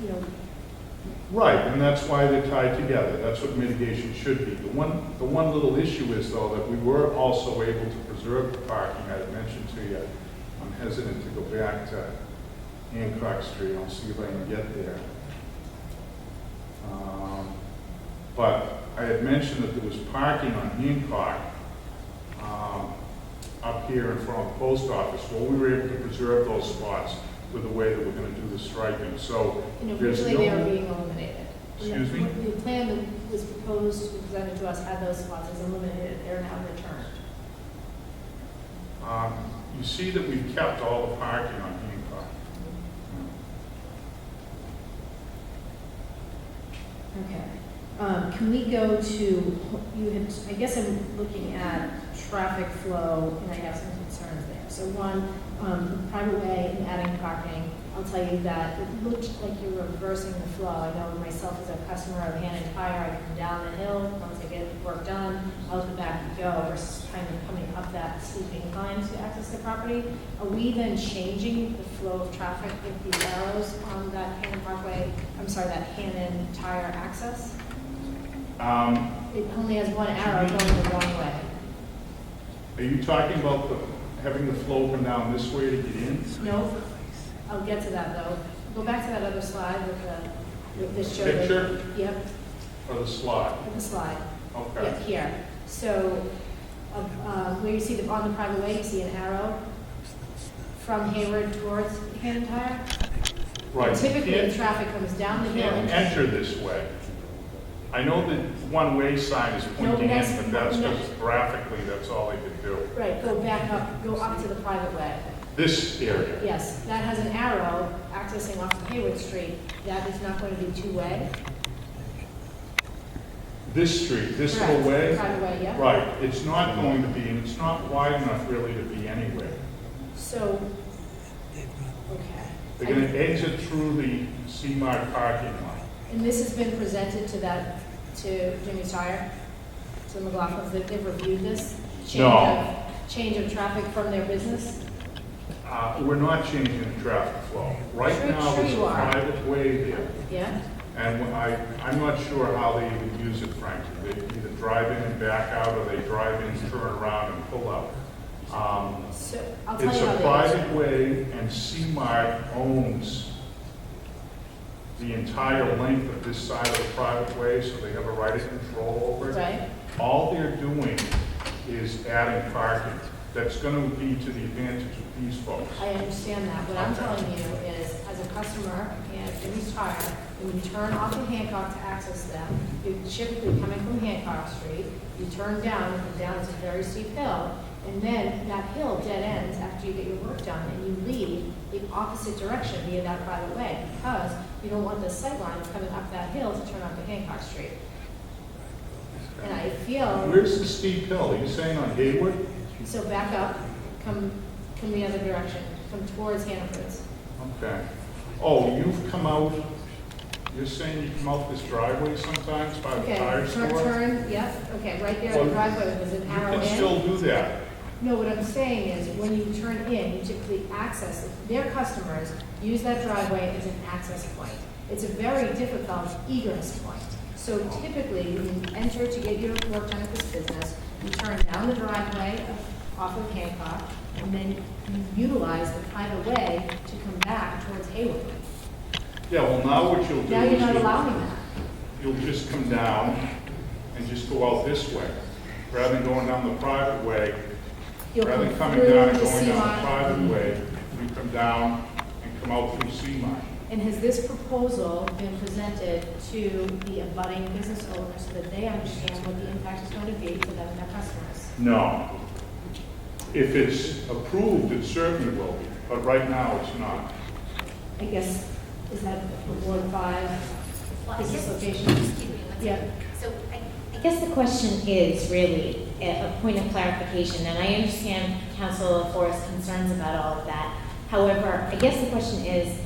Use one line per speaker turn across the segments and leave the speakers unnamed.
you know,
Right, and that's why they're tied together, that's what mitigation should be. The one, the one little issue is though that we were also able to preserve the parking, I had mentioned to you, I'm hesitant to go back to Hancock Street, I'll see if I can get there. Um, But I had mentioned that there was parking on Hancock, um, up here in front of the post office, well, we were able to preserve those spots with the way that we're gonna do the striping, so
And
there's no...
originally they were being eliminated.
Excuse me?
The plan that was proposed, presented to us, had those spots as eliminated, they're now returned.
Um, You see that we've kept all the parking on Hancock.
Okay. Um, Can we go to, you had, I guess I'm looking at traffic flow, and I have some concerns there. So one, um, private way and adding parking, I'll tell you that it looked like you were reversing the flow. I know myself as a customer of Hannah Tire, I come down the hill, once I get work done, out the back you go, versus kind of coming up that steep incline to access the property. Are we then changing the flow of traffic with these arrows on that Hannon Parkway, I'm sorry, that Hannon Tire access?
Um,
It only has one arrow going the wrong way.
Are you talking about the, having the flow come down this way to get in?
No, I'll get to that though. Go back to that other slide with the, with this show. that-
Picture?
Yep,
Or the slot?
with the slide. Yep,
Okay.
here. So, uh, uh, where you see the, on the private way, you see an arrow from Hayward towards Hannon Tire.
Right. You
Typically, the
can't-
traffic comes down the
you
hill. and-
Can't enter this way. I know that one-way sign is pointing
that's-
in, but that's
no.
just graphically, that's all they could do.
Right, go back up, go up to the private way.
This area.
Yes, that has an arrow accessing off of Hayward Street. That is not going to be two-way.
This street, this
Correct.
little way?
Private way, yeah.
Right, it's not going to be, and it's not wide enough really to be anywhere.
So, okay.
They're gonna exit through the CMAR parking lot.
And this has been presented to that, to Jimmy Tire, to McLaughlin, that they've reviewed this? change
No.
of- Change of traffic from their business?
Uh, We're not changing the traffic flow. Right
Sure-
now,
sure
it's a
you are.
private way there,
Yeah?
and when I, I'm not sure how they even use it, frankly. They either drive in and back out, or they drive in, turn around, and pull out. Um,
So, I'll tell
It's
you
a
how they
private way, and CMAR owns the entire length of this side of the private way, so they have a right of control over it.
Right?
All they're doing is adding parking. That's gonna be to the advantage of these folks.
I understand that. What I'm telling you is, as a customer, and Jimmy's Tire, when you turn off of Hancock to access them, you're typically coming from Hancock Street, you turn down, and come down is a very steep hill, and then that hill dead ends after you get your work done, and you leave the opposite direction via that private way, because you don't want the sightline coming up that hill to turn onto Hancock Street. And I feel,
Where's the steep hill? Are you saying on Hayward?
so back up, come, come the other direction, come towards Hannaford's.
Okay. Oh, you've come out, you're saying you come out this driveway sometimes by the
Okay,
tire
turn,
store?
turn, yep, okay, right there in the
Well,
driveway was an
You
arrow
can
in.
still do that.
No, what I'm saying is, when you turn in, you typically access, their customers use that driveway as an access point. It's a very difficult egress point. So typically, when you enter to get your work done at this business, you turn down the driveway off of Hancock, and then you utilize the private way to come back towards Hayward.
Yeah, well, now what you'll do
Now you're
is
not
you'll-
allowing that.
you'll just come down and just go out this way, rather than going down the private way.
You'll
Rather than
come
coming
through
down and
the
going down
C-line.
the private way, you come down and come out through Seamine.
And has this proposal been presented to the abutting business owners so that they understand what the impact is going to be for them and their customers?
No. If it's approved, it certainly will be, but right now it's not.
I guess, is that the Ward Five
Well, I
business
guess,
location?
excuse me, one
Yeah.
second. So I,
I guess the question is really a a point of clarification, and I understand Council Forrest's concerns about all of that. However, I guess the question is,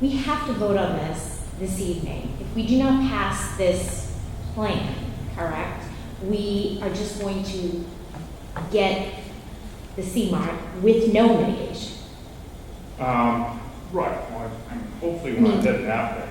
we have to vote on this this evening. If we do not pass this plan, correct, we are just going to get the C mark with no mitigation.
Um, Right, well, I'm- I'm hopefully we're not heading that way.